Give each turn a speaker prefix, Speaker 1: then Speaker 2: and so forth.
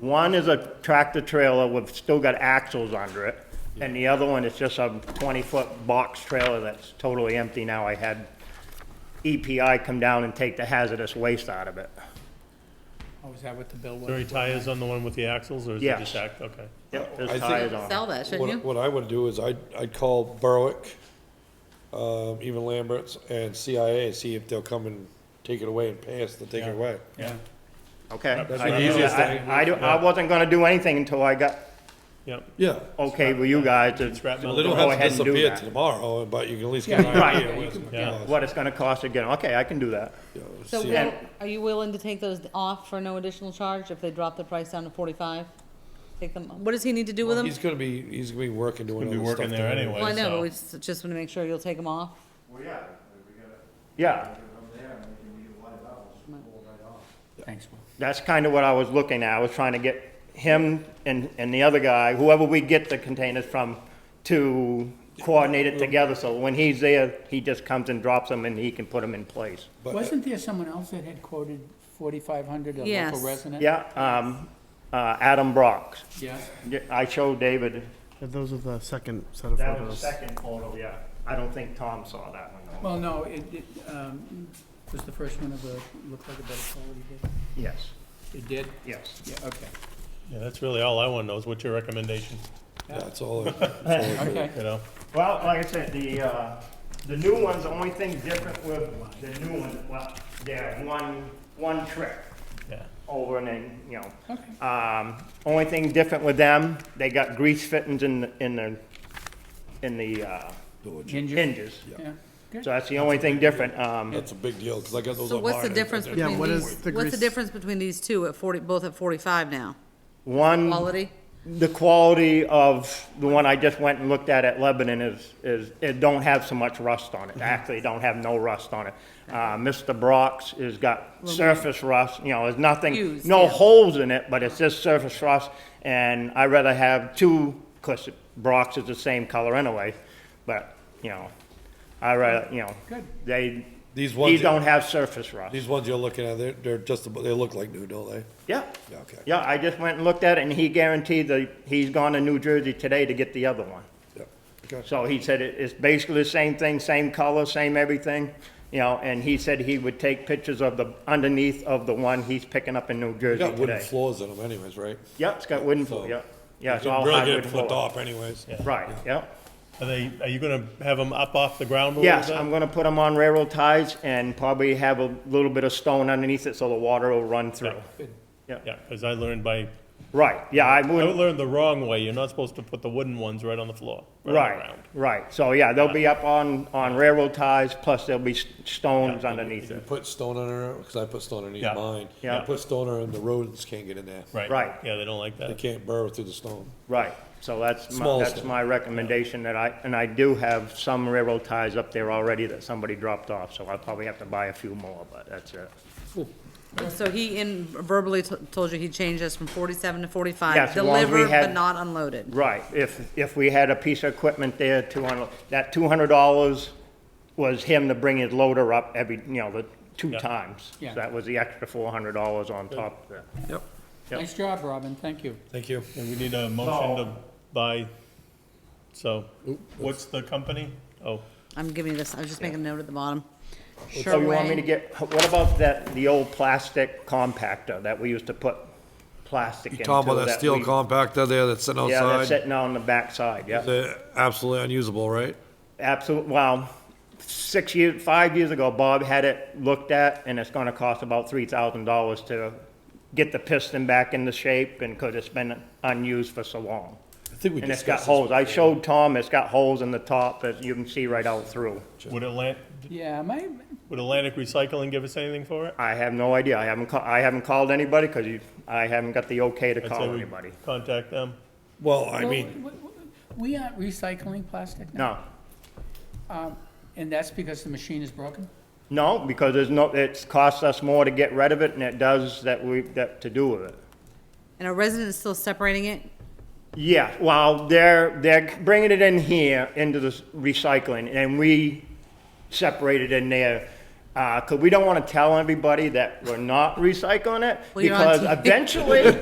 Speaker 1: One is a tractor trailer with, still got axles under it, and the other one is just a twenty-foot box trailer that's totally empty now. I had EPI come down and take the hazardous waste out of it.
Speaker 2: Oh, is that what the bill was?
Speaker 3: Are there any tires on the one with the axles, or is it
Speaker 1: Yes.
Speaker 3: just act, okay.
Speaker 1: Yep,
Speaker 4: I
Speaker 1: there's
Speaker 4: think-
Speaker 1: tires on it.
Speaker 5: Sell that, shouldn't
Speaker 4: What,
Speaker 5: you?
Speaker 4: what I would do is I'd, I'd call Berwick, um, even Lambert's and CIA, see if they'll come and take it away and pay us to take it away.
Speaker 2: Yeah,
Speaker 1: Okay.
Speaker 4: That's
Speaker 1: I-
Speaker 4: the easiest thing.
Speaker 1: I, I do- I wasn't gonna do anything until I got
Speaker 3: Yep.
Speaker 4: Yeah.
Speaker 1: okay with you guys to
Speaker 3: Scrap
Speaker 1: to
Speaker 3: metal.
Speaker 4: They
Speaker 1: Oh, go
Speaker 4: don't have to
Speaker 1: ahead and do
Speaker 4: disappear
Speaker 1: that.
Speaker 4: tomorrow, but you can at least get an
Speaker 2: Yeah, right.
Speaker 4: idea.
Speaker 2: Yeah,
Speaker 4: what
Speaker 2: you
Speaker 4: it's
Speaker 2: can-
Speaker 4: gonna
Speaker 3: yeah.
Speaker 4: cost.
Speaker 1: What it's gonna cost again. Okay, I can do that.
Speaker 4: You know,
Speaker 6: So
Speaker 4: see-
Speaker 6: will- are you willing to take those off for no additional charge if they drop the price down to forty-five? Take them, what does he need to do with them?
Speaker 4: He's gonna be, he's gonna be working doing
Speaker 3: Gonna be
Speaker 4: other stuff.
Speaker 3: working there
Speaker 4: down
Speaker 3: anyway.
Speaker 6: Well, I know,
Speaker 3: so-
Speaker 6: but we s- just want to make sure you'll take them off.
Speaker 1: Yeah,
Speaker 2: thanks, Will.
Speaker 1: that's kind of what I was looking at. I was trying to get him and, and the other guy, whoever we get the containers from, to coordinate it together, so when he's there, he just comes and drops them and he can put them in place.
Speaker 4: But
Speaker 2: Wasn't there someone else that had quoted forty-five hundred, a local
Speaker 6: Yes.
Speaker 2: resident?
Speaker 1: Yeah, um, uh, Adam Brock.
Speaker 2: Yes.
Speaker 1: Yeah, I showed David.
Speaker 7: Yeah, those are the second set of photos.
Speaker 1: second photo, yeah. I don't think Tom saw that one
Speaker 2: Well, no, it, it, um, was the first one of a, looked like a better quality bid.
Speaker 1: Yes,
Speaker 2: It did?
Speaker 1: yes.
Speaker 2: Yeah, okay,
Speaker 3: Yeah, that's really all I wanna know, is what's your recommendation,
Speaker 4: that's all. I- that's all I could-
Speaker 2: okay.
Speaker 3: you know?
Speaker 1: Well, like I said, the, uh, the new one's, the only thing different with the new one, well, they're one, one trip.
Speaker 3: Yeah.
Speaker 1: over and then, you know.
Speaker 2: Okay.
Speaker 1: Um, only thing different with them, they got grease fittings in, the in the, in the, uh,
Speaker 2: Ginger?
Speaker 1: hinges.
Speaker 2: Yeah, good.
Speaker 1: So that's the only thing different, um,
Speaker 4: That's a big deal, cause I got those
Speaker 6: So
Speaker 4: on
Speaker 6: what's the
Speaker 4: mine.
Speaker 6: difference
Speaker 4: and- and-
Speaker 6: between
Speaker 7: what
Speaker 6: these,
Speaker 7: is the
Speaker 6: what's the
Speaker 7: grease-
Speaker 6: difference between these two at forty, both at forty-five now?
Speaker 1: one,
Speaker 6: Quality?
Speaker 1: the quality of the one I just went and looked at at Lebanon is, is, it don't have so much rust on it. Actually, it don't have no rust on it. Uh, Mr. Brock's has got surface rust, you know, there's nothing,
Speaker 6: Used,
Speaker 1: no
Speaker 6: yeah.
Speaker 1: holes in it, but it's just surface rust. And I'd rather have two, because Brock's is the same color anyway, but, you know, I rather, you know,
Speaker 2: Good.
Speaker 1: they,
Speaker 4: These
Speaker 1: these
Speaker 4: ones,
Speaker 1: don't have surface rust.
Speaker 4: these ones you're looking at, they're, they're just, about- they look like new, don't they?
Speaker 1: Yeah.
Speaker 4: Yeah, okay.
Speaker 1: Yeah, I just went and looked at it, and he guaranteed that he's gone to New Jersey today to get the other one.
Speaker 4: Yeah. Okay.
Speaker 1: So he said it, it's basically the same thing, same color, same everything, you know, and he said he would take pictures of the underneath of the one he's picking up in New
Speaker 4: They
Speaker 1: Jersey
Speaker 4: got wooden
Speaker 1: today.
Speaker 4: floors in them anyways, right?
Speaker 1: Yep, it's got wooden floor,
Speaker 4: So-
Speaker 1: yep. Yeah, it's
Speaker 4: You
Speaker 1: all
Speaker 4: Really
Speaker 1: hardwood
Speaker 4: get flipped
Speaker 1: floor.
Speaker 4: off anyways.
Speaker 1: Right, yep.
Speaker 3: Are they, are you gonna have them up off the ground a little bit?
Speaker 1: Yes, I'm gonna put them on railroad ties and probably have a little bit of stone underneath it so the water will run through.
Speaker 3: Yeah, cause I learned by,
Speaker 1: Right, yeah, I
Speaker 3: I
Speaker 1: wouldn't,
Speaker 3: learned the wrong way, you're not supposed to put the wooden ones right on the floor. on the
Speaker 1: Right,
Speaker 3: ground.
Speaker 1: right. So, yeah, they'll be up on, on railroad ties, plus there'll be s- stones underneath
Speaker 4: You
Speaker 1: it.
Speaker 4: put stone under it, because I put stone underneath
Speaker 3: Yeah.
Speaker 4: mine.
Speaker 1: Yeah.
Speaker 4: You put stone under it, the rodents can't get in there.
Speaker 3: Right.
Speaker 1: Right.
Speaker 3: Yeah, they don't like
Speaker 4: They
Speaker 3: that.
Speaker 4: can't burrow through the stone.
Speaker 1: Right. So that's, my-
Speaker 4: Small
Speaker 1: that's
Speaker 4: stone.
Speaker 1: my recommendation that I, and I do have some railroad ties up there already that somebody dropped off, so I'll probably have to buy a few more, but that's it.
Speaker 6: So he in verbally t- told you he changed us from forty-seven to
Speaker 1: Yes, as
Speaker 6: forty-five,
Speaker 1: long as we
Speaker 6: delivered but
Speaker 1: had-
Speaker 6: not unloaded.
Speaker 1: Right, if, if we had a piece of equipment there, two hundred, that two hundred dollars was him to bring his loader up every, you know, the two
Speaker 3: Yeah.
Speaker 1: times. So
Speaker 2: Yeah.
Speaker 1: that was the extra four hundred dollars on top Oh, of that.
Speaker 4: Yep.
Speaker 1: Yep.
Speaker 2: Nice job, Robin, thank you.
Speaker 4: Thank you.
Speaker 3: And we need a motion
Speaker 1: So-
Speaker 3: to buy, so, what's the company? Oh,
Speaker 6: I'm giving you this, I was just making a note at the bottom.
Speaker 1: So you want me to
Speaker 6: Sherway,
Speaker 1: get, what about that, the old plastic compactor that we used to put plastic into?
Speaker 4: Talking about that steel
Speaker 1: we-
Speaker 4: compactor there that's sitting
Speaker 1: Yeah, that's
Speaker 4: outside,
Speaker 1: sitting on the backside, yeah.
Speaker 4: they're absolutely unusable, right?
Speaker 1: Absolutely, well, six years, five years ago, Bob had it looked at, and it's gonna cost about three thousand dollars to get the piston back into shape, and because it's been unused for so long.
Speaker 4: I think we
Speaker 1: And it's got
Speaker 4: discussed
Speaker 1: holes,
Speaker 4: this.
Speaker 1: I showed Tom, it's got holes in the top that you can see right out through.
Speaker 3: would Atlantic,
Speaker 2: Yeah, my,
Speaker 3: would Atlantic Recycling give us anything for it?
Speaker 1: I have no idea, I haven't, ca- I haven't called anybody, because you, I haven't got the okay to
Speaker 3: I'd say
Speaker 1: call
Speaker 3: we
Speaker 1: anybody.
Speaker 3: Contact them.
Speaker 4: Well, I
Speaker 2: well,
Speaker 4: mean,
Speaker 2: w- w- we aren't recycling plastic now,
Speaker 1: No,
Speaker 2: and that's because the machine is broken?
Speaker 1: no, because there's no, it's cost us more to get rid of it than it does that we, that, to do with it.
Speaker 6: and our residents still separating it?
Speaker 1: Yeah, well, they're, they're bringing it in here into the s- recycling, and we separate it in there. Uh 'cause cause we don't wanna tell everybody that we're not recycling it,
Speaker 6: Well, you're on
Speaker 1: because
Speaker 6: TV.
Speaker 1: eventually,